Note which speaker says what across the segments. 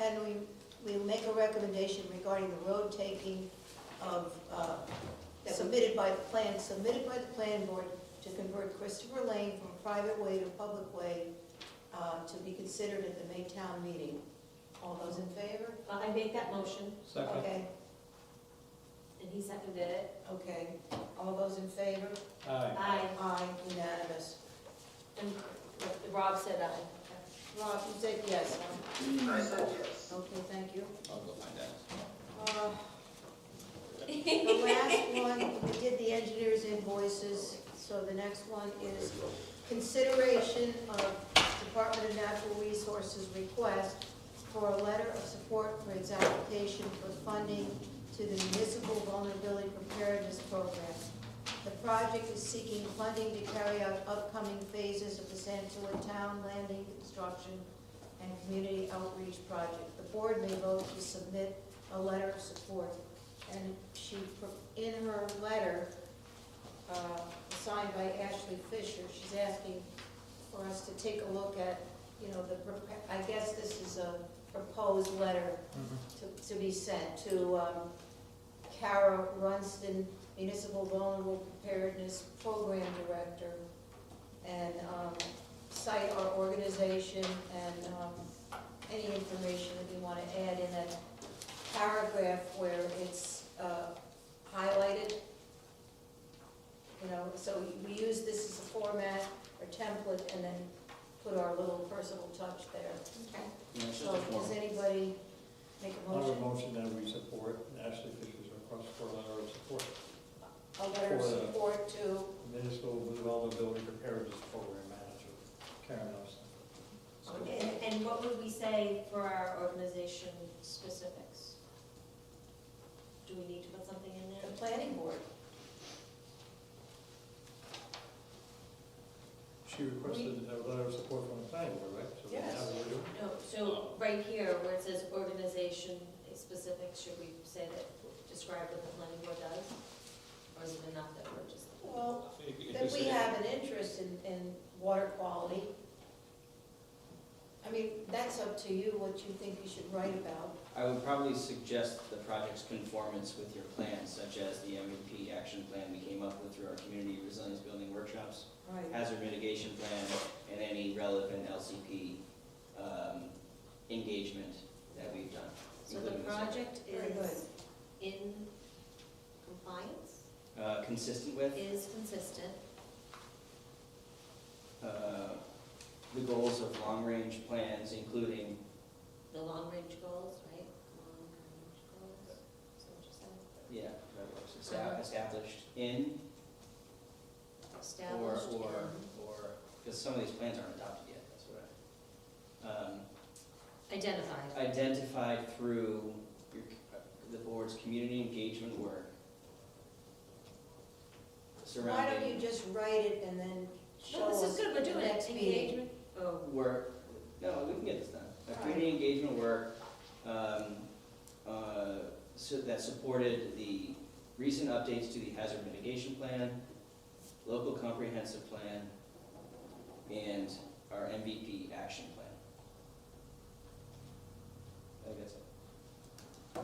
Speaker 1: and we, we'll make a recommendation regarding the road taking of, uh, submitted by the plan, submitted by the plan board to convert Christopher Lane from a private way to public way, uh, to be considered at the May town meeting. All those in favor?
Speaker 2: I made that motion,
Speaker 3: Second.
Speaker 1: Okay,
Speaker 2: and he seconded it.
Speaker 1: okay. All those in favor?
Speaker 3: Aye.
Speaker 2: Aye,
Speaker 1: Aye, unanimous.
Speaker 2: and Rob said aye.
Speaker 1: Rob, you said yes.
Speaker 4: I said yes.
Speaker 1: Okay, thank you.
Speaker 3: I'll go find out.
Speaker 1: Uh, The last one, we did the engineer's invoices, so the next one is consideration of Department of Natural Resources request for a letter of support for its application for funding to the Municipal Vulnerability Preparedness Program. The project is seeking funding to carry out upcoming phases of the Santuit Town Landing Construction and Community Outreach Project. The board may vote to submit a letter of support and she, pro- in her letter, uh, signed by Ashley Fisher, she's asking for us to take a look at, you know, the, prop- I guess this is a proposed letter
Speaker 5: Mm-hmm.
Speaker 1: to, to be sent to, um, Kara Runston, Municipal Vulnerable Preparedness Program Director, and, um, cite our organization and, um, any information that we wanna add in that paragraph where it's, uh, highlighted. You know, so we use this as a format or template and then put our little personal touch there.
Speaker 3: Yeah, it's just a
Speaker 1: So
Speaker 3: form.
Speaker 1: does anybody make a
Speaker 5: I would
Speaker 1: motion?
Speaker 5: motion that we support Ashley Fisher's request for a letter of support,
Speaker 1: A letter of
Speaker 5: For the-
Speaker 1: support to,
Speaker 5: municipal vulnerability preparedness program manager, Karen Nelson.
Speaker 2: And, and what would we say for our organization specifics? Do we need to put something in
Speaker 1: the
Speaker 2: there?
Speaker 1: planning board.
Speaker 5: She requested a letter of support from the planning board, right? So
Speaker 1: Yes.
Speaker 5: now we're doing-
Speaker 2: No, so right here where it says organization specifics, should we say that, describe what the planning board does? Or is it enough that we're just?
Speaker 1: Well,
Speaker 3: If- if
Speaker 1: that
Speaker 3: it's-
Speaker 1: we have an interest in, in water quality. I mean, that's up to you, what you think we should write about.
Speaker 6: I would probably suggest the project's conformance with your plans, such as the MVP action plan we came up with through our community resilience building workshops,
Speaker 1: Right.
Speaker 6: hazard mitigation plan, and any relevant LCP um, engagement that we've done.
Speaker 2: So the
Speaker 6: including this one.
Speaker 2: project
Speaker 1: Very
Speaker 2: is in compliance,
Speaker 6: Uh, Consistent with
Speaker 2: is consistent,
Speaker 6: uh, the goals of long-range plans, including,
Speaker 2: the long-range goals, right? Long-range goals, so just
Speaker 6: yeah, that works, esta- established in or,
Speaker 2: established.
Speaker 6: or,
Speaker 2: in-
Speaker 6: or, because some of these plans aren't adopted yet, that's what I. um,
Speaker 2: Identified,
Speaker 6: identified through your, the board's community engagement work
Speaker 1: Why don't you
Speaker 6: surrounding
Speaker 1: just write it and then show
Speaker 2: no,
Speaker 1: us?
Speaker 2: this is good, we're doing it,
Speaker 1: next meeting.
Speaker 2: engagement, oh,
Speaker 6: work, no, we can get this done. Uh, Community engagement work, um, uh, so that supported the recent updates to the hazard mitigation plan, local comprehensive plan, and our MVP action plan. I think that's it.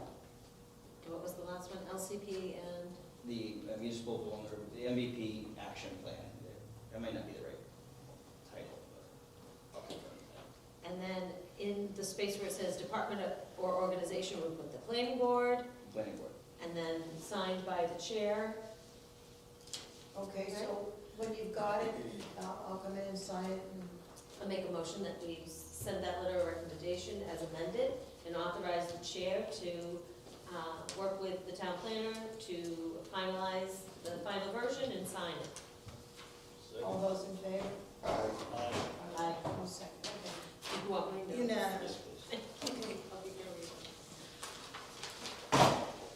Speaker 2: what was the last one, LCP and,
Speaker 6: the uh, municipal vulnerable, the MVP action plan. That might not be the right title, but I'll confirm that.
Speaker 2: and then in the space where it says department of- or organization, we put the planning board,
Speaker 6: Planning board.
Speaker 2: and then signed by the chair,
Speaker 1: Okay, so when you've got it, I'll, I'll come in and sign it and
Speaker 2: I make a motion that we send that letter of recommendation as amended and authorize the chair to uh, work with the town planner to finalize the final version and sign it.
Speaker 1: all those in favor?
Speaker 5: Aye.
Speaker 2: Aye.
Speaker 1: One second, okay.
Speaker 2: If you want my notes.
Speaker 1: Unanimous.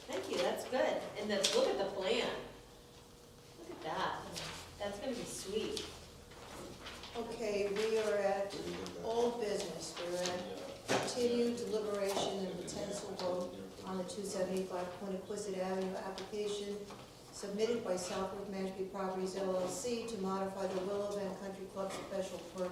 Speaker 2: Thank you, that's good. And then look at the plan. Look at that. That's gonna be sweet.
Speaker 1: Okay, we are at old business, we're at continued deliberation and potential vote on the two seventy-five Quiniquisette Avenue application submitted by Southwick Mashpee Properties LLC to modify the Willow Van Country Club special permit.